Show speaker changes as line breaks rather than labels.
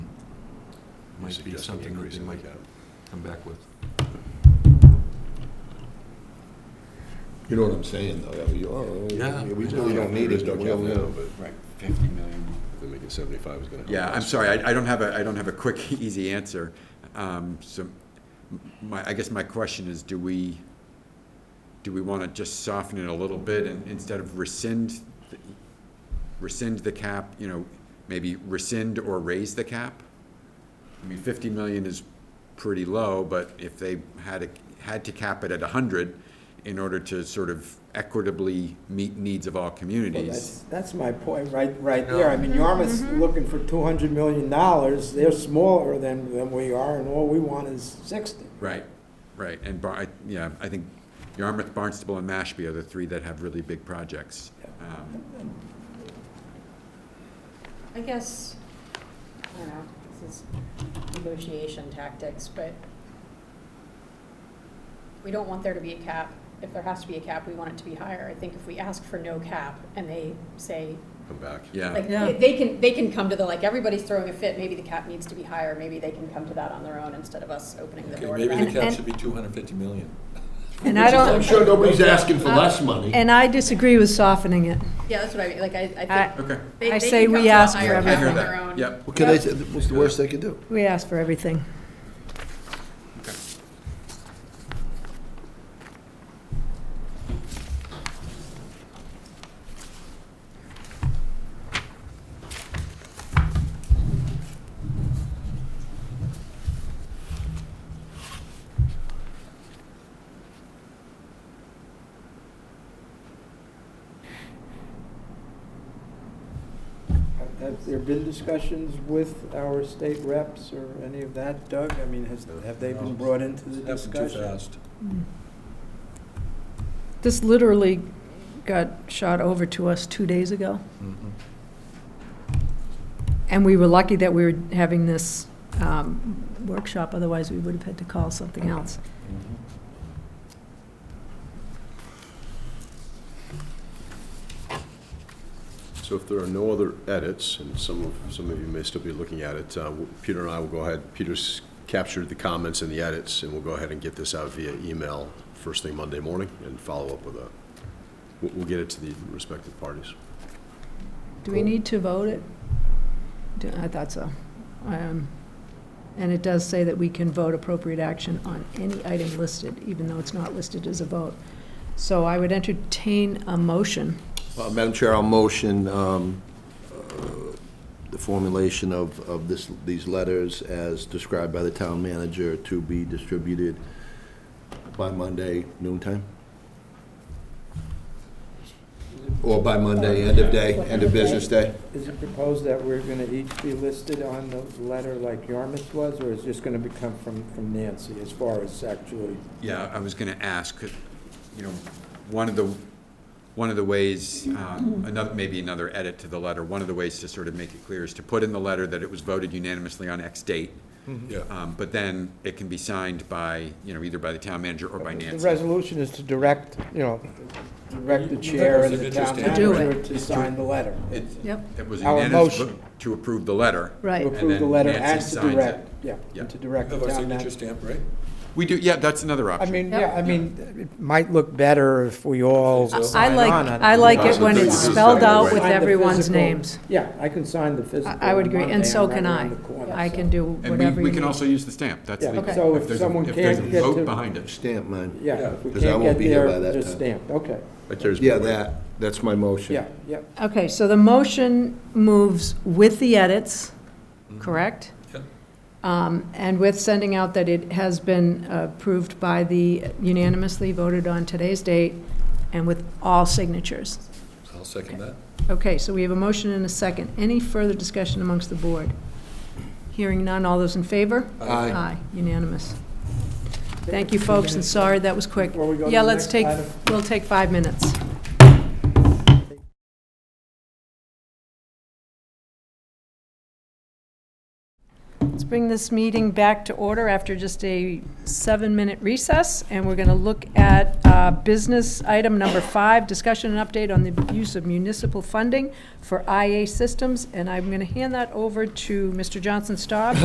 might be something that they might come back with.
You know what I'm saying, though? that we- oh,
Yeah.
We
I
really
know.
don't need it, but we'll know.
Right.
Fifty million.
Then making seventy-five is gonna help.
Yeah, I'm
us.
sorry, I, I don't have a, I don't have a quick, easy answer. Um, so, my, I guess my question is, do we, do we wanna just soften it a little bit and instead of rescind, the- rescind the cap, you know, maybe rescind or raise the cap? I mean, fifty million is pretty low, but if they had, a- had to cap it at a hundred in order to sort of equitably meet needs of all
Well,
communities.
that's, that's my point, right, right there. I mean, Yarmouth's looking for two hundred million dollars. They're smaller than, than we are, and all we want is sixty.
Right, right, and Bar, I- yeah, I think Yarmouth, Barnstable, and Mashpee are the three that have really big projects. Um,
I guess, I don't know, this is negotiation tactics, but we don't want there to be a cap. If there has to be a cap, we want it to be higher. I think if we ask for no cap and they say,
Come back.
Yeah,
like, they they can, they can come to the, like, everybody's throwing a fit, maybe the cap needs to be higher, maybe they can come to that on their own instead of us opening the door to
Maybe the
that.
cap should be 250 million.
And I
I'm
don't, Uh,
sure nobody's asking for less money.
and I disagree with softening it.
Yeah, that's what I mean, like, I, I
I,
think.
okay.
they-
I
they
say
can
we
come to a
ask for
higher cap
I hear
on their
that,
own.
yep.
What can they, what's the worst they can do?
we ask for everything.
Have- Have there been discussions with our state reps or any of that, Doug? I mean, has, have they been brought into the
Happened too
discussion?
fast.
This literally got shot over to us two days ago.
Mm-hmm.
And we were lucky that we were having this um, workshop, otherwise we would have had to call something else.
So if there are no other edits, and some of, some of you may still be looking at it, uh, w- Peter and I will go ahead, Peter's captured the comments and the edits, and we'll go ahead and get this out via email first thing Monday morning and follow up with a, we'll, we'll get it to the respective parties.
Do we need to vote it? Do- I thought so. Um, And it does say that we can vote appropriate action on any item listed, even though it's not listed as a vote. So I would entertain a motion.
Uh, Madam Chair, I'll motion um, uh, the formulation of, of this, these letters as described by the town manager to be distributed by Monday noontime? Or by Monday, end of day, end of business day?
Is it proposed that we're gonna each be listed on the letter like Yarmouth was, or is this gonna become from, from Nancy as far as actually?
Yeah, I was gonna ask, could- you know, one of the, one of the ways, um, another, maybe another edit to the letter, one of the ways to sort of make it clear is to put in the letter that it was voted unanimously on X date.
Mm-hmm.
Yeah.
Um, But then it can be signed by, you know, either by the town manager or by
The
Nancy.
resolution is to direct, you know, direct the chair and the town
To
do it.
manager to sign the letter.
It
Yep.
it was
Our
unanimous
motion.
vote to approve the letter.
To
Right.
approve the
then
letter and
Nancy
to
signs it.
direct, yeah,
Yeah.
and to direct the
Have our
town
signature
manager.
stamp, right?
We do, yeah, that's another
I
option.
mean,
Yep.
yeah, I mean, it might look better if we all
I- I
I
sign
like,
on on
I like it when it's spelled out with
Sign the
everyone's
physical-
names.
Yeah, I can sign the physical.
I I would agree,
on
and so
Monday,
can
right around
I.
the corner,
I
so.
can do
And we,
whatever you
we
need.
can also use the stamp, that's
Yeah,
legal.
Okay.
so if
there's a-
someone
if there's a
can't get
vote
to-
behind it.
Stamp mine.
Yeah, if we
'Cause I
can't
won't
get
be here by
there,
that
just
time.
stamped, okay,
That carries me
Yeah,
away.
that, that's my motion.
yeah, yeah.
Okay, so the motion moves with the edits,
Mm-hmm.
correct?
Yep.
Um, And with sending out that it has been approved by the unanimously voted on today's date and with all signatures.
I'll second that.
Okay, so we have a motion and a second. Any further discussion amongst the board? Hearing none, all those in favor?
Aye.
Aye, unanimous. Thank you, folks, and sorry that was quick.
Before we go to
Yeah,
the
let's
next
take,
item.
we'll take five minutes. Let's bring this meeting back to order after just a seven-minute recess, and we're going to look at uh, business item number five, discussion and update on the use of municipal funding for IA systems, and I'm going to hand that over to Mr. Johnson Staub,